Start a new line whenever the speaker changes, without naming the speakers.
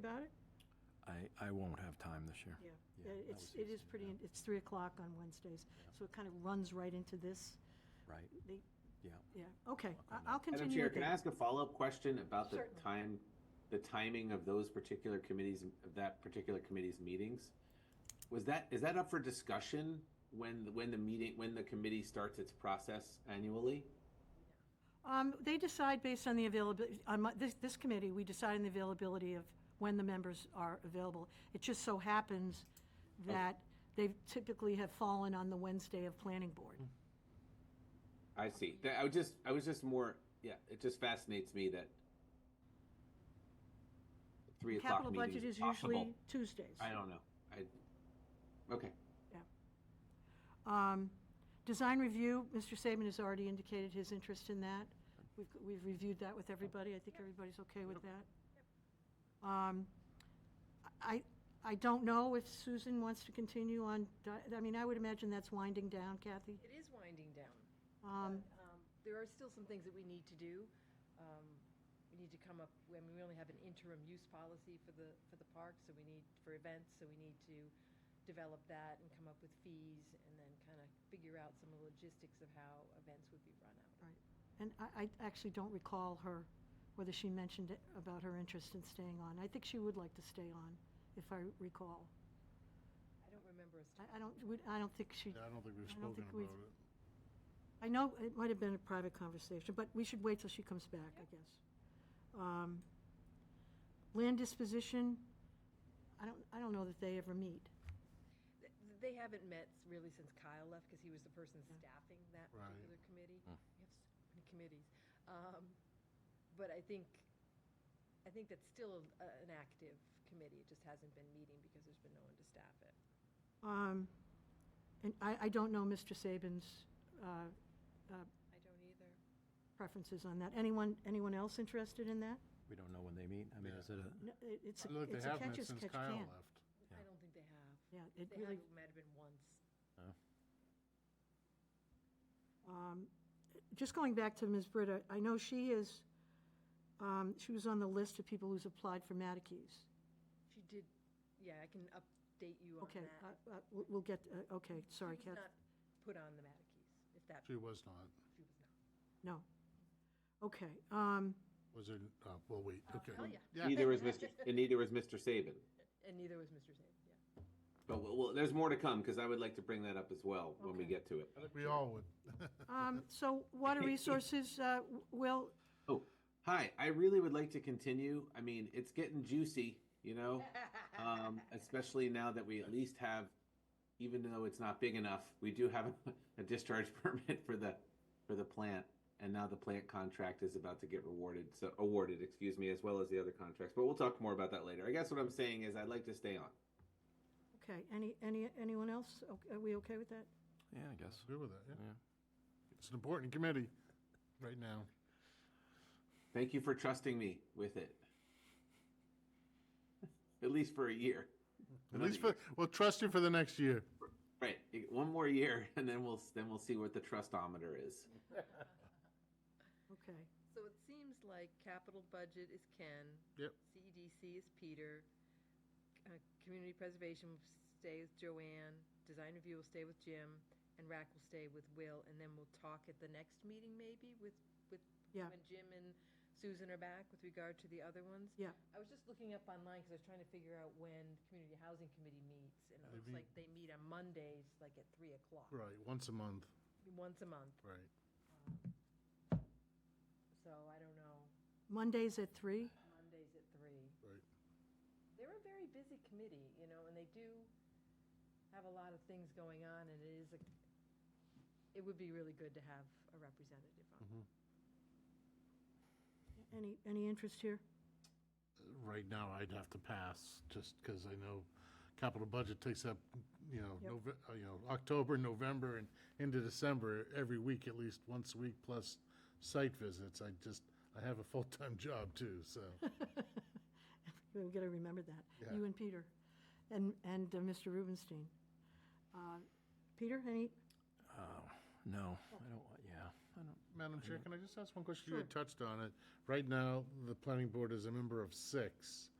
about it?
I, I won't have time this year.
Yeah.
Yeah,
Yeah,
that
It's,
was
it is
easy,
pretty,
yeah.
in- it's 3 o'clock on Wednesdays,
Yeah.
so it kind of runs right into this.
Right,
They,
yeah.
yeah, okay,
Welcome
I-
back.
I'll
Madam
continue.
Chair,
with
can I
that.
ask a follow-up question about the
Certainly.
time, the timing of those particular committees, of that particular committee's meetings? Was that, is that up for discussion when, when the meeting, when the committee starts its process annually?
Um, They decide based on the availability, on my- this, this committee, we decide on the availability of when the members are available. It just so happens
Oh.
that they typically have fallen on the Wednesday of planning
Hmm.
board.
I see. That, I was just, I was just more, yeah, it just fascinates me that three o'clock
Capital
meeting
budget is
is possible.
usually Tuesdays.
I don't know. I, okay.
Yeah. Um, Design review, Mr. Saban has already indicated his interest in that. We've, we've reviewed that with everybody. I think everybody's okay with that. Um, I, I don't know if Susan wants to continue on, di- I mean, I would imagine that's winding down, Kathy.
It is winding down.
Um,
but, um, There are still some things that we need to do. Um, We need to come up, I mean, we only have an interim use policy for the, for the park, so we need, for events, so we need to develop that and come up with fees and then kind of figure out some of the logistics of how events would be run out.
Right. And I, I actually don't recall her, whether she mentioned it about her interest in staying on. I think she would like to stay on, if I recall.
I don't remember us.
I I don't, we- I don't think she.
Yeah, I don't think we've
I don't
spoken
think we've-
about it.
I know it might have been a private conversation, but we should wait till she comes back, I guess. Um, Land disposition, I don't, I don't know that they ever meet.
Th- They haven't met really since Kyle left, because he was the person staffing that
Right.
particular committee. We have so many committees. Um, But I think, I think that's still a- an active committee, it just hasn't been meeting because there's been no one to staff it.
Um, And I, I don't know Mr. Saban's uh, uh,
I don't either.
preferences on that. Anyone, anyone else interested in that?
We don't know when they meet. I mean, is it a,
No, it- It's
I don't
a
think
it's
they
a
have met
catch as
since
catch
Kyle
can.
left.
I don't think they have.
Yeah,
If
it
They have,
really,
it might have been once.
no?
Um, just going back to Ms. Britta, I know she is, um, she was on the list of people who's applied for Matikes.
She did, yeah, I can update you on
Okay,
that.
uh, uh, we'll we'll get, uh, okay, sorry,
She was
Kath.
not put on the Matikes, if that,
She was not.
she was not.
No. Okay, um,
Was it, uh, well, wait, okay.
tell ya.
Yeah,
Neither was Mr., and neither was Mr. Saban.
And neither was Mr. Saban, yeah.
But well, well, there's more to come because I would like to bring that up as well when we get to it.
we all would.
um, so water resources, uh, Will,
Oh, hi. I really would like to continue. I mean, it's getting juicy, you know, um, especially now that we at least have, even though it's not big enough, we do have a discharge permit for the for the plant, and now the plant contract is about to get rewarded, so awarded, excuse me, as well as the other contracts. But we'll talk more about that later. I guess what I'm saying is I'd like to stay on.
okay, any, any, anyone else? Okay, Are we okay with that?
Yeah, I guess.
Agree with that, yeah.
Yeah.
It's an important committee right now.
Thank you for trusting me with it, at least for a year.
At least for, we'll trust you for the next year.
Right, you- one more year, and then we'll then we'll see what the trustometer is.
Okay,
So it seems like capital budget is Ken.
Yep.
CEDC is Peter. Uh, Community preservation will stay with Joanne. Design review will stay with Jim. And RAC will stay with Will. And then we'll talk at the next meeting maybe with, with,
Yeah.
when Jim and Susan are back with regard to the other ones.
yeah,
I was just looking up online because I was trying to figure out when the Community Housing Committee meets. And it looks
Maybe-
like they meet on Mondays, like at 3 o'clock.
Right, once a month,
Once a month.
right.
So I don't know,
Mondays at three?
Mondays at 3.
Right.
They're a very busy committee, you know, and they do have a lot of things going on, and it is, a it would be really good to have a representative on.
Any, any interest here?
Right now, I'd have to pass, just because I know capital budget takes up, you know,
Yep.
Nove- uh, you know, October, November, and into December, every week, at least once a week, plus site visits. I just, I have a full-time job too, so.
We've got to remember that,
Yeah.
you and Peter, and, and uh, Mr. Rubenstein. Uh, Peter, any,
Oh, No, I don't, want- yeah, I don't,
Madam Chair, can I just ask one question? You had touched on it. Right now, the planning board is a member of six.